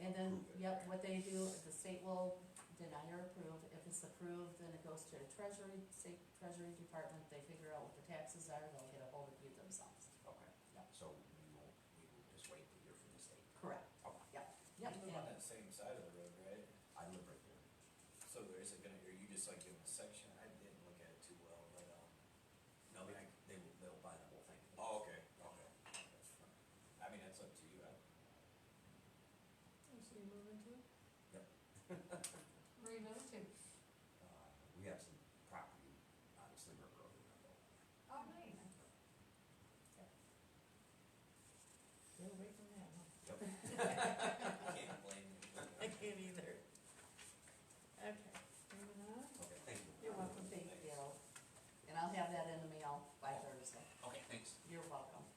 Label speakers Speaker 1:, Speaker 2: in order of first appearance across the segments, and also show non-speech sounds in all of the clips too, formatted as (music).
Speaker 1: And then, yep, what they do, the state will deny or approve, if it's approved, then it goes to the treasury, state treasury department, they figure out what the taxes are, they'll get a hold of you themselves.
Speaker 2: Okay.
Speaker 1: Yep.
Speaker 2: So we will, we will just wait to hear from the state.
Speaker 1: Correct.
Speaker 2: Okay.
Speaker 1: Yep,
Speaker 3: You
Speaker 1: yep,
Speaker 3: live on that same side of the road, right?
Speaker 2: I live right there.
Speaker 3: So there isn't gonna, are you just like in a section? I didn't look at it too well, but, um,
Speaker 2: No, they, they will, they'll buy the whole thing.
Speaker 3: oh, okay, okay. That's fine. I mean, that's up to you. I- (laughs)
Speaker 4: So you moving to?
Speaker 2: Yep.
Speaker 4: (laughs) Where you moving to?
Speaker 2: Uh, we have some property, obviously, we're growing up.
Speaker 4: Oh, nice.
Speaker 1: get away from that, (laughs) huh?
Speaker 3: I can't blame you.
Speaker 1: I can't either. Okay, moving on.
Speaker 2: Okay, thank you.
Speaker 1: You're welcome, thank you. And I'll have that in the mail by Thursday.
Speaker 2: Okay, thanks.
Speaker 1: You're welcome.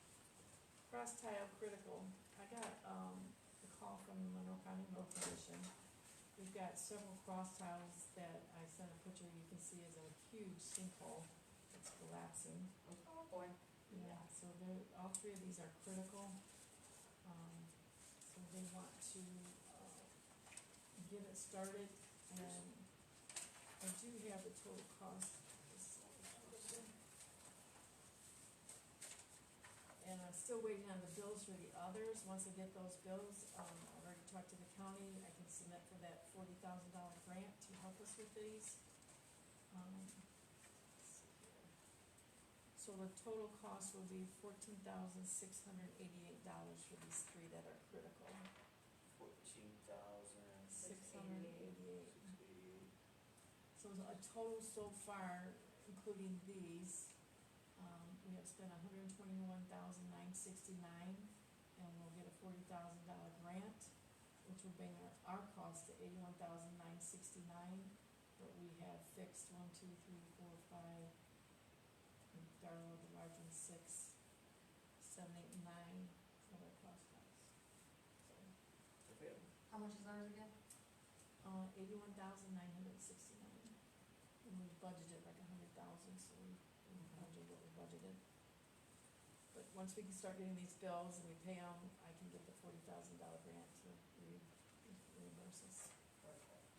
Speaker 4: Cross tile critical. I got, um, a call from the Monroe County Road Commission. We've got several cross tiles that I sent a picture, you can see is a huge sinkhole. It's collapsing.
Speaker 1: Oh, boy.
Speaker 4: Yeah, so they're, all three of these are critical. Um, so they want to, uh, get it started and I do have the total cost. And I'm still waiting on the bills for the others. Once I get those bills, um, I've already talked to the county. I can submit for that forty thousand dollar grant to help us with these. Um, let's see here. So the total cost will be fourteen thousand six hundred eighty-eight dollars for these three that are critical.
Speaker 3: Fourteen thousand
Speaker 4: Six hundred eighty-eight.
Speaker 3: six eighty-eight.
Speaker 4: So the- a total so far, including these, um, we have spent a hundred and twenty-one thousand nine sixty-nine, and we'll get a forty thousand dollar grant, which will bring our, our cost to eighty-one thousand nine sixty-nine, but we have fixed one, two, three, four, five, and Darla, the large one, six, seven, eight, and nine, for their cost cuts. So,
Speaker 3: If we have
Speaker 5: How much is ours again?
Speaker 4: uh, eighty-one thousand nine hundred sixty-nine. And we budgeted like a hundred thousand, so we we
Speaker 1: Mm-hmm.
Speaker 4: budgeted what we budgeted. But once we can start getting these bills and we pay them, I can get the forty thousand dollar grant to re- reimburse us.
Speaker 3: Perfect.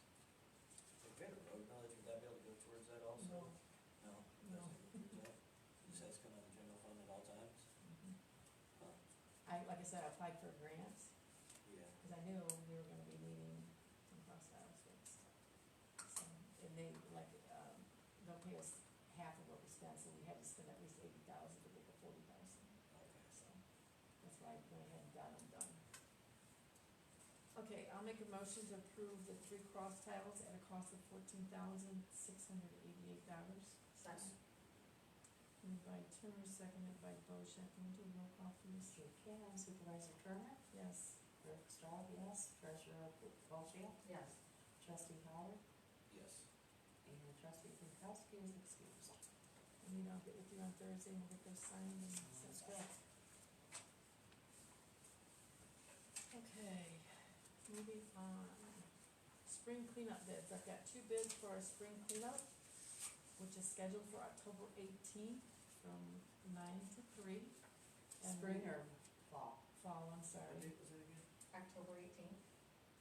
Speaker 3: If we had a road knowledge, would that be able to go towards that also? No. it doesn't
Speaker 4: No.
Speaker 3: go towards that? Does that come out of the general fund at all times?
Speaker 4: Mhm.
Speaker 3: Huh,
Speaker 4: I, like I said, I applied for a grant,
Speaker 3: yeah.
Speaker 4: cause I knew we were gonna be needing some cross aisles fixed. So, and they like, um, they'll pay us half of what we spend, so we have to spend at least eighty thousand to get the forty thousand.
Speaker 3: Okay.
Speaker 4: So, that's why I went ahead and got them done. Okay, I'll make a motion to approve the three cross tiles at a cost of fourteen thousand six hundred eighty-eight dollars.
Speaker 5: Second.
Speaker 4: Moved by Turner, seconded by Bochamp, can we do a roll call please?
Speaker 1: Sure can. Supervisor Turner?
Speaker 4: Yes.
Speaker 1: Clerk Strad, yes. Treasurer Bochamp?
Speaker 5: Yes.
Speaker 1: Trustee Howard?
Speaker 3: Yes.
Speaker 1: And trustee Pankowski is excused.
Speaker 4: I mean, I'll get with you on Thursday and we'll get those signed and sent back. Okay, moving on. Spring cleanup bids. I've got two bids for our spring cleanup, which is scheduled for October eighteenth from nine to three. And
Speaker 1: Spring
Speaker 4: we-
Speaker 1: or fall?
Speaker 4: Fall, I'm sorry.
Speaker 3: was that again?
Speaker 5: October eighteenth.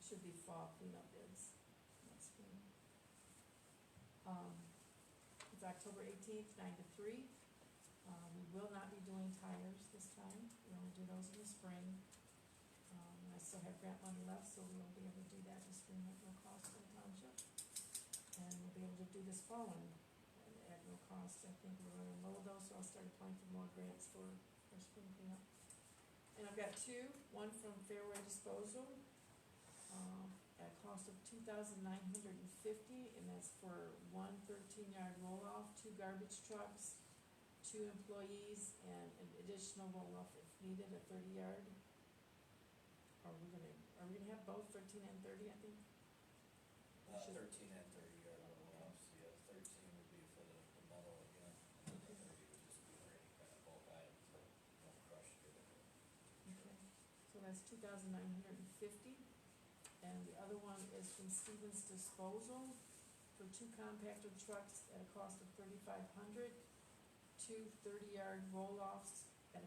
Speaker 4: Should be fall cleanup bids, not spring. Um, it's October eighteenth, nine to three. Um, we will not be doing tires this time, we only do those in the spring. Um, I still have grant money left, so we won't be able to do that this spring at no cost to the township. And we'll be able to do this fall one at no cost, I think we're running low though, so I'll start applying for more grants for, for spring cleanup. And I've got two, one from Fairway Disposal, um, at a cost of two thousand nine hundred and fifty, and that's for one thirteen yard roll off, two garbage trucks, two employees, and an additional roll off if needed, a thirty yard. Are we gonna, are we gonna have both thirteen and thirty, I think?
Speaker 3: Uh,
Speaker 4: Should-
Speaker 3: thirteen and thirty are the ones, yeah, thirteen would be for the, the metal again, and then thirty would just be for any kind of bulk items that don't crush your.
Speaker 4: Okay, so that's two thousand nine hundred and fifty, and the other one is from Stevens Disposal for two compactor trucks at a cost of thirty-five hundred, two thirty-yard roll-offs